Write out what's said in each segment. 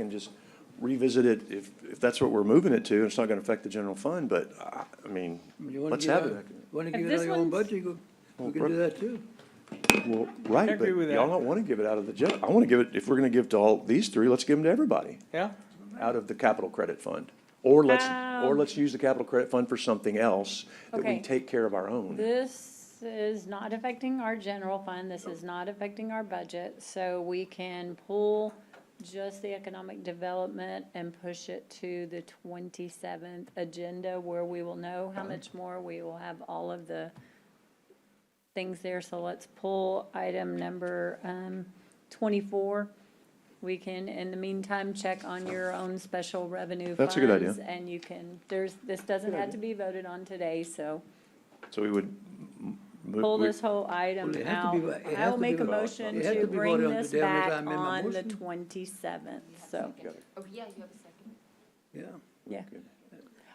can just revisit it if, if that's what we're moving it to, and it's not gonna affect the general fund, but I, I mean, You wanna let's get have out- it. Wanna And give it this out of your own one's- budget, you go, Well, we can do Brooke- that too. Well, right, but agree with y'all that. don't wanna give it out of the general, I wanna give it, if we're gonna give to all these three, let's give them to everybody. Yeah? out of the capital credit fund. Or let's, or Um, let's use the capital credit fund for something else that we Okay. take care of our own. This is not affecting our general fund, this is not affecting our budget, so we can pull just the economic development and push it to the twenty-seventh agenda where we will know how much more, we will have all of the things there, so let's pull item number, um, twenty-four. We can, in the meantime, check on your own special revenue That's a good idea. funds, And you can, there's, this doesn't have to be voted on today, so So we would. m- mo- pull we- this whole item Well, it has to out. be vo- it I has will to be make a voted on. motion It has to to be bring voted on this today unless I back amend my on the motion. twenty-seventh, so, Oh, yeah, you have a second. Yeah, yeah.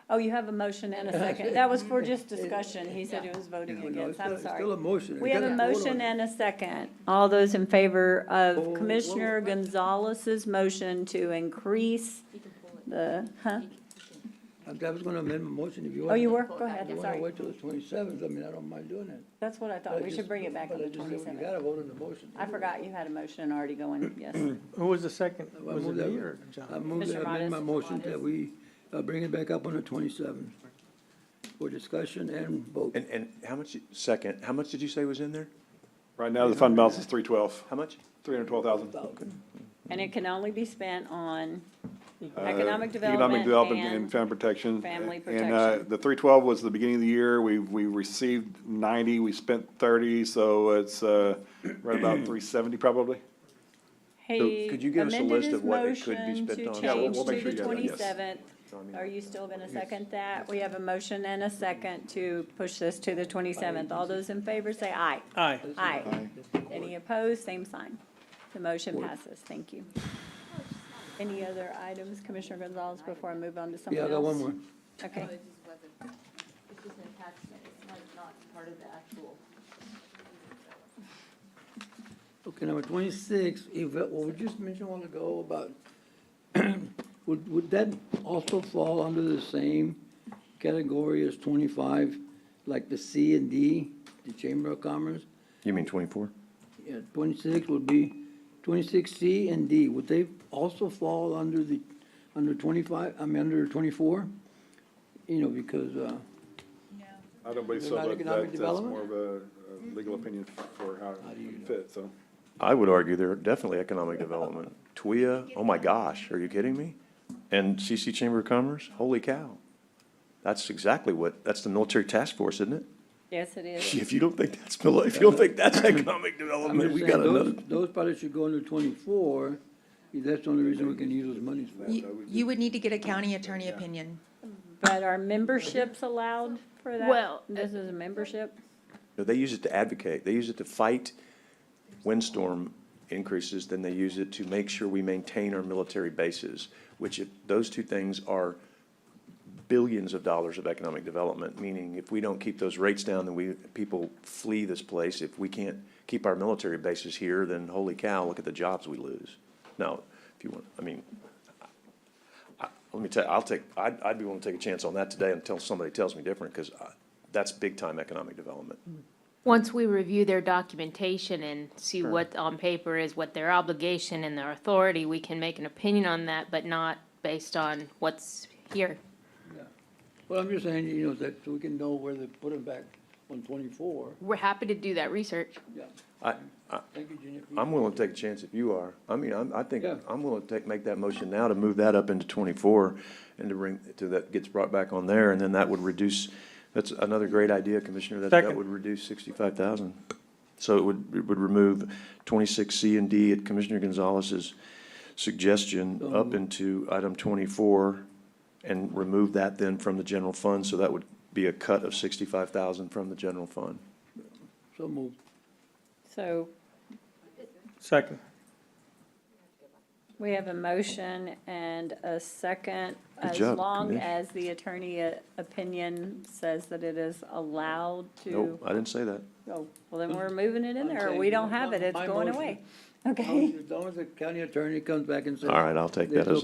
Oh, you have a motion and a second. That was for just discussion. He said he was voting Well, no, it's against. still- I'm it's Still a sorry. motion. We have a motion and a second. All those in favor of Commissioner Gonzalez's motion to increase You can pull it. the, huh? I was gonna amend my motion if you want. Oh, you were? Go If ahead, You wanna sorry. wait till the twenty-seventh, I mean, I don't mind doing it. That's what I But thought. I We should just- bring it back but on I the just said You twenty-seventh. gotta vote on the motion. I forgot you had a motion already going, yes. Who was the second? I Was it move that- me or I John? move Mr. that, I amend my Modis. motion that we, uh, bring it back up on the twenty-seventh for discussion and vote. And, and how much, you- second, how much did you say was in there? Right now, the fund balance is three twelve, How much? three hundred twelve thousand. And it can only be spent on Uh, Economic Uh, economic development and and, family protection. family And, uh, protection. the three twelve was the beginning of the year, we, we received ninety, we spent thirty, so it's, uh, right about three seventy probably. hey, could you give us a amended list his of what it could be motion spent to on? Yeah, we'll- change we'll make to the sure you have that, twenty-seventh. Are you still gonna second that? We have a motion and a second to push this to the twenty-seventh. All those in favor say aye. Aye. Aye. Any opposed, same sign. The motion passes, thank you. Any other items, Commissioner Gonzalez, before I move on to something Yeah, I else? got one more. Okay, No, it's just whether, it's just an attachment, it's like not part of the actual. Okay, number twenty-six, if, uh, what we just mentioned a while ago about, would, would that also fall under the same category as twenty-five, like the C and D, the Chamber of Commerce? You mean twenty-four? Yeah, twenty-six would be, twenty-six C and D, would they also fall under the, under twenty-five, I mean, under twenty-four? You know, because, uh, I don't believe so, Not but economic that, that's development? more of a, a legal opinion for how How do you know? it fits, so. I would argue they're definitely economic development. TWIA, oh my gosh, are you kidding me? And CC Chamber of Commerce, holy cow. That's exactly what, that's the military task force, isn't it? yes, it is. If you don't think that's, mil- if you don't think that's economic I'm development, just we saying, got another. those, those probably should go under twenty-four, that's the only reason we can use those monies for. You, you would need to get a county attorney opinion. But are memberships allowed for that? Well, This is a membership? No, they use it to advocate. They use it to fight windstorm increases, then they use it to make sure we maintain our military bases, which if, those two things are billions of dollars of economic development, meaning if we don't keep those rates down, then we, people flee this place. If we can't keep our military bases here, then holy cow, look at the jobs we lose. Now, if you want, I mean, let me tell you, I'll take, I'd, I'd be willing to take a chance on that today until somebody tells me different, because that's big-time economic development. Once we review their documentation and see what on paper is, what their obligation and their authority, we can make an opinion on that, but not based on what's here. Well, I'm just saying, you know, that so we can know where they put them back on twenty-four. We're happy to do that research. Yeah. I- Thank you, Junior. I'm willing to take a chance if you are. I mean, I'm, I think, Yeah. I'm willing to take, make that motion now to move that up into twenty-four and to bring, to that gets brought back on there, and then that would reduce, that's another great idea, Commissioner, that, that Second. would reduce sixty-five thousand. So it would, it would remove twenty-six C and D at Commissioner Gonzalez's suggestion up into item twenty-four and remove that then from the general fund, so that would be a cut of sixty-five thousand from the general fund. So moved. So Second. we have a motion and a second, Good as job, long Kanish. as the attorney uh, opinion says that it is allowed to. Nope, I didn't say that. Oh, well, then we're moving it in I'm there. saying, We don't my- have it. It's my going motion- away. As long Okay. as- as long as the county attorney comes back and says. All right, I'll take that It's as a-